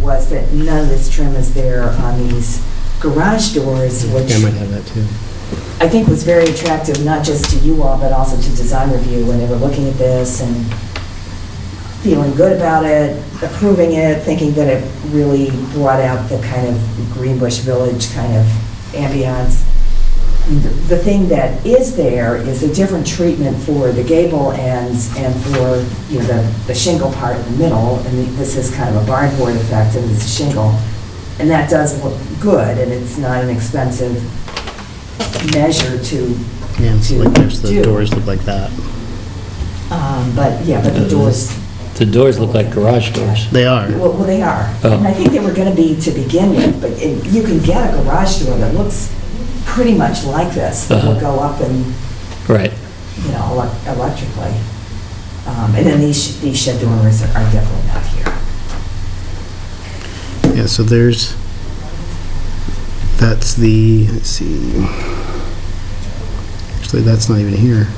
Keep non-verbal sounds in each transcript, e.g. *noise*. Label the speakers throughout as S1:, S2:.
S1: that none of this trim is there on these garage doors, which
S2: I might have that too.
S1: I think was very attractive, not just to you all, but also to design review when they were looking at this and feeling good about it, approving it, thinking that it really brought out the kind of Greenbush Village kind of ambiance. The thing that is there is a different treatment for the gable ends and for, you know, the- the shingle part in the middle, and the- this is kind of a barn board effect, and this is shingle. And that does look good, and it's not an expensive measure to,
S2: Yeah, it's
S1: to
S2: like there's the
S1: do.
S2: doors look like that.
S1: Um, But, yeah,
S3: Uh,
S1: but the doors,
S3: The doors look like garage doors.
S2: They are.
S1: well, well, they are.
S3: Oh.
S1: And I think they were going to be to begin with, but it- you can get a garage door that looks pretty much like this. that will
S3: Uh-huh.
S1: go up and,
S3: Right.
S1: you know, elec- electrically. Um, And then these, sh- these shed dormers are are definitely not here.
S2: Yeah, so there's, that's the, let's see. Actually, that's not even here.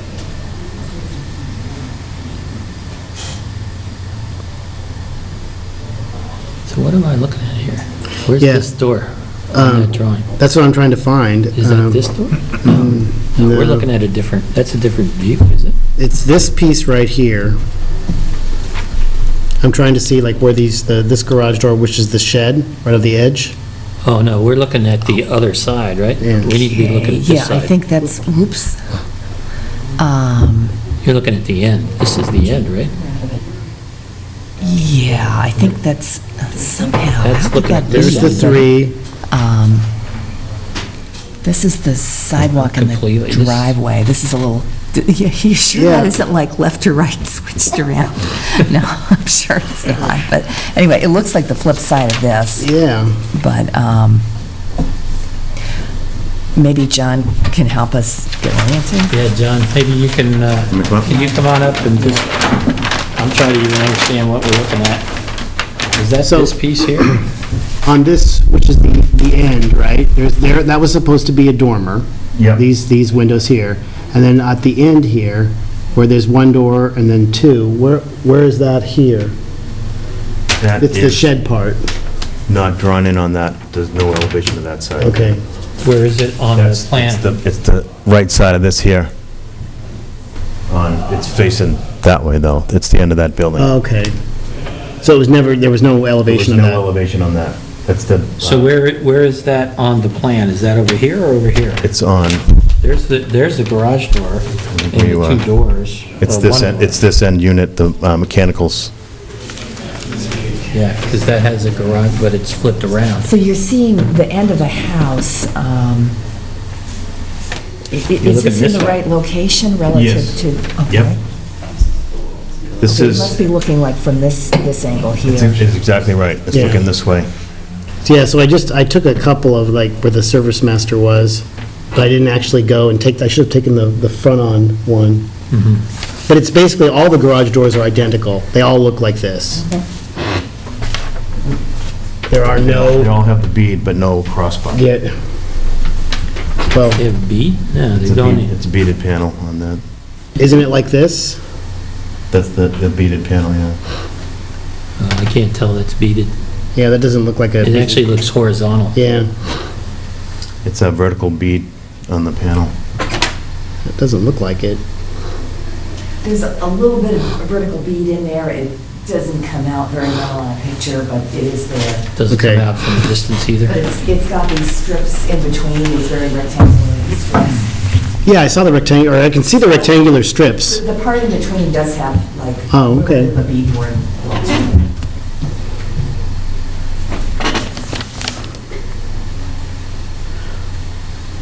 S3: So what am I looking at here? Where's
S2: Yeah.
S3: this door on
S2: Um,
S3: that drawing?
S2: That's what I'm trying to find.
S3: Is that
S2: Um,
S3: this door?
S2: um,
S3: No, we're
S2: no.
S3: looking at a different, that's a different view, is it?
S2: It's this piece right here. I'm trying to see like where these, the this garage door, which is the shed, right on the edge.
S3: Oh, no, we're looking at the other side, right? We
S2: Yeah.
S3: need to be looking at
S4: Yeah,
S3: this
S4: I
S3: side.
S4: think that's, whoops. Um,
S3: You're looking at the end. This is the end, right?
S4: Yeah, I think that's somehow.
S3: That's
S4: how could
S3: looking
S4: that
S3: at
S4: be?
S2: There's the three,
S4: Um, This is the sidewalk and
S3: Completely,
S4: the
S3: this-
S4: driveway. This is a little, *laughs* yeah, you sure that
S2: Yeah.
S4: isn't like left to right *laughs* switched around? No, I'm sure it's not, but anyway, it looks like the flip side of this,
S2: yeah.
S4: but um, maybe John can help us get oriented.
S3: Yeah, John, maybe you can, uh, can you come on up and just, I'm trying to even understand what we're looking at. Is that
S2: So-
S3: this piece here?
S2: On this, which is the, the end, right, there's, there, that was supposed to be a dormer.
S5: Yep.
S2: These, these windows here. And then at the end here, where there's one door and then two, where, where is that here?
S5: That
S2: It's the
S5: is
S2: shed part,
S5: not drawn in on that, there's no elevation of that side.
S2: okay.
S3: Where is it on the
S5: That's, it's
S3: plan?
S5: the, it's the right side of this here. On, it's facing that way, though. It's the end of that building.
S2: Oh, Okay. So it was never, there was no
S5: There was
S2: elevation on
S5: no
S2: that?
S5: elevation on that. That's the,
S3: So where, where is that on the plan? Is that over here or over here?
S5: uh, it's on,
S3: There's the, there's the garage door and the
S5: you, uh,
S3: two doors.
S5: it's
S2: Oh,
S3: or
S5: this,
S3: one
S5: end.
S3: door.
S5: it's this end unit, the uh, mechanicals.
S3: Yeah, because that has a garage, but it's flipped around.
S4: So you're seeing the end of the house. um, i- i-
S3: You're
S4: Is
S3: looking
S4: this in
S3: this
S4: the
S3: way.
S4: right location relative
S5: Yes.
S4: to?
S5: Yep.
S4: okay.
S5: This
S4: So it must
S5: is,
S4: be looking like from this, this angle
S5: it's
S4: here.
S5: it's exactly right. It's
S2: Yeah.
S5: looking this way.
S2: Yeah, so I just, I took a couple of like where the service master was, but I didn't actually go and take, I should have taken the, the front-on one.
S3: Mm-hmm.
S2: But it's basically, all the garage doors are identical. They all look like this. There are
S5: They
S2: no,
S5: all have the bead, but no crossbar.
S2: yeah. Well,
S3: They have bead? No,
S5: It's
S3: they
S5: a
S3: don't.
S5: bead- it's a beaded panel on that.
S2: isn't it like this?
S5: That's the, the beaded panel, yeah.
S3: Uh, I can't tell that's beaded.
S2: Yeah, that doesn't look like a.
S3: It actually looks horizontal.
S2: Yeah,
S5: It's a vertical bead on the panel.
S2: it doesn't look like it.
S1: There's a little bit of vertical bead in there. It doesn't come out very well on a picture, but it is there.
S3: Doesn't
S2: Okay.
S3: come out from a distance either.
S1: But it's, it's got these strips in between, these very rectangular strips.
S2: Yeah, I saw the rectangle, or I can see the rectangular strips.
S1: The part in between does have like.
S2: Oh, okay.
S1: A beadboard.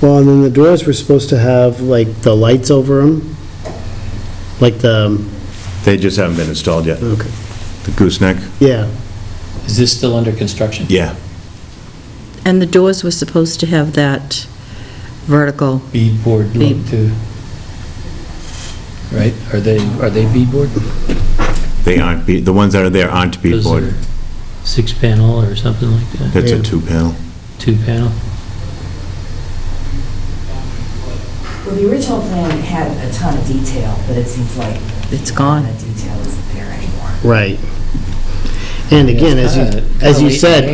S2: Well, and then the doors were supposed to have, like, the lights over them, like the,
S5: They just haven't been installed yet.
S2: okay,
S5: The gooseneck?
S2: yeah.
S3: Is this still under construction?
S5: Yeah.
S6: And the doors were supposed to have that vertical,
S3: Beadboard look
S6: Bead.
S3: too. Right? Are they, are they beadboard?
S5: They aren't, be- the ones that are there aren't
S3: Those are
S5: beadboard.
S3: Six panel or something like that?
S5: It's
S2: Yeah.
S5: a two-panel.
S3: Two panel?
S1: Well, the original plan had a ton of detail, but it seems like.
S6: it's
S1: none
S6: gone.
S1: of The detail isn't there anymore.
S2: Right. And again, as you, as you said,